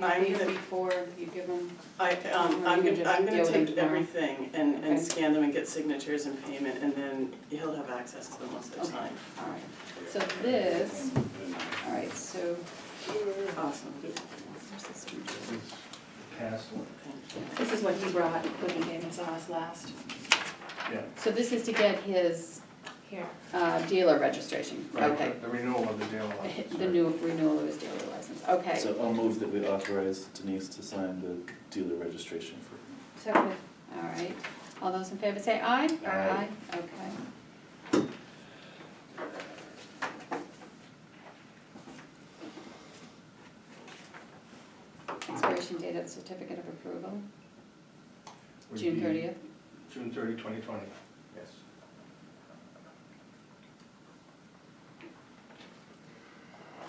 I'm these gonna- before you give them? I, um, Or I'm you can gonna, just I'm gonna deal with them take tomorrow. everything and, and Okay. scan them and get signatures and payment, and then he'll have access to them once they're Okay. signed. All right, so this, all right, so Awesome, Castle. thank you. this is what he brought when he gave us ours last. Yeah. So this is to get his Here. uh, dealer registration, okay. The renewal of the deal. The new renewal of his dealer license, okay. So I'll move that we authorize Denise to sign the dealer registration for. Second. All right, all those in favor say aye? Aye. okay. Expiration date of certificate of approval, Would June be thirtieth, June thirty, twenty twenty, yes.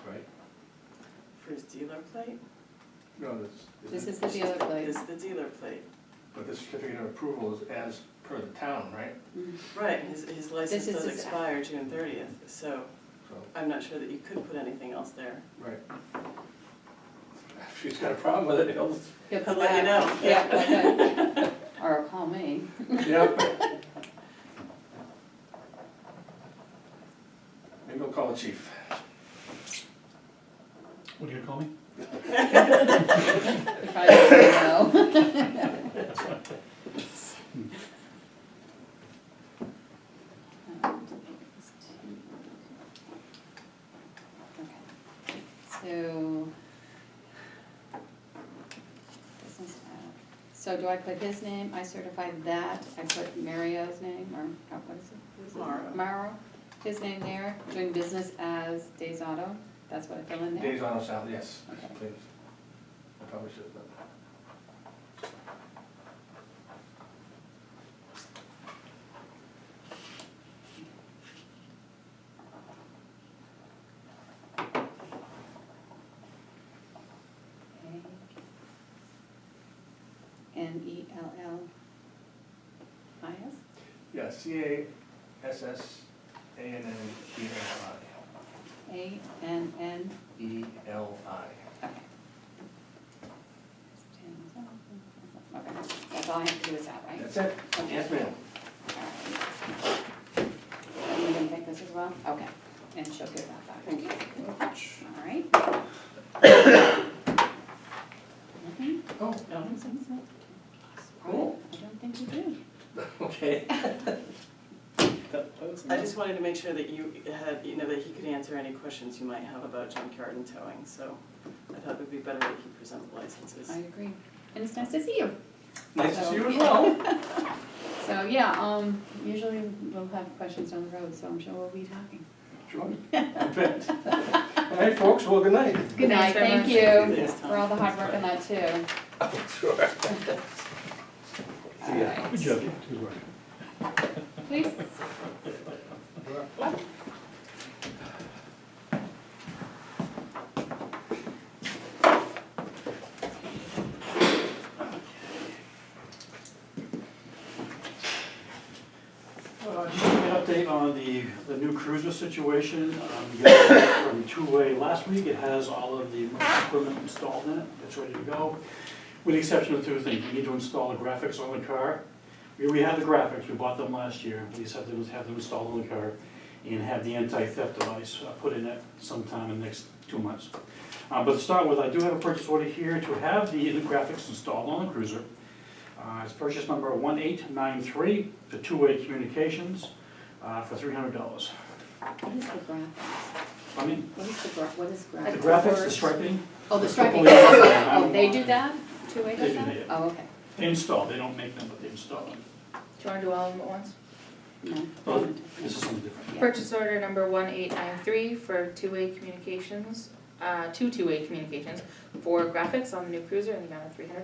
Right? For his dealer plate? No, this. this is the dealer place. Is the dealer plate, But the certificate of approval is as per the town, right? Mm. right, his, his license is does his- expire June thirtieth, so So, I'm not sure that you could put anything else there. right. If she's got a problem with it, he'll, He'll I'll come let you know, back. yeah. Yeah, okay. Or call me. yeah. Maybe we'll call the chief. What are you gonna call me? You probably already know. Okay, So. business ad. uh, So do I put his name, I certify that, I put Mario's name, or, oh, what is it? Who's his- Mauro. Mauro, his name there, doing business as Days Auto, that's what I fill in there? Days on a salary, yes, Okay. please. I probably should, but. N E L L I S? Yeah, C A S S A N N E L A N N, I. E L I. okay. Okay, that's all I have to do is that, right? That's it? Yes, ma'am. Alright. Are you gonna take this as well? Okay, and she'll give that back. Thank you. Alright. Nothing? Oh, I No. don't think so. Cool. I don't think you do. okay. That- that was I nice. just wanted to make sure that you had, you know, that he could answer any questions you might have about junkyard and towing, so I thought it would be better that he present the licenses. I agree. And it's nice to see you. Nice to see you as So- well. So, yeah, um, usually we'll have questions down the road, so I'm sure we'll be talking. Sure. I bet. All right, folks, well, good night. Good night, thank Thanks very much. you Thanks, Tom. for all the hard work on that too. Sure. All right. Good job. Good work. Please. Uh, Just an update on the, the new cruiser situation. Um, You got it From two-way last week, it has all of the equipment installed in it, it's ready to go. With the exception of two things, we need to install the graphics on the car. We, we have the graphics, we bought them last year, we just have to have them installed on the car and have the anti-theft device uh, put in it sometime in the next two months. Uh, But to start with, I do have a purchase order here to have the the graphics installed on the cruiser. Uh, It's purchase number 1893 for two-way communications uh, for $300. What is the graph? I mean, What is the gra, what is graph? the graphics, the striping, Oh, the striping, Oh, yeah. oh, they do that? Two-way does They do that? that. Oh, okay. they install, they don't make them, but they install them. Do you wanna do all of them at once? No. Well, This is something different. Yeah. Purchase order number one eight nine three for two-way communications, uh, two two-way communications for graphics on the new cruiser in the amount of three hundred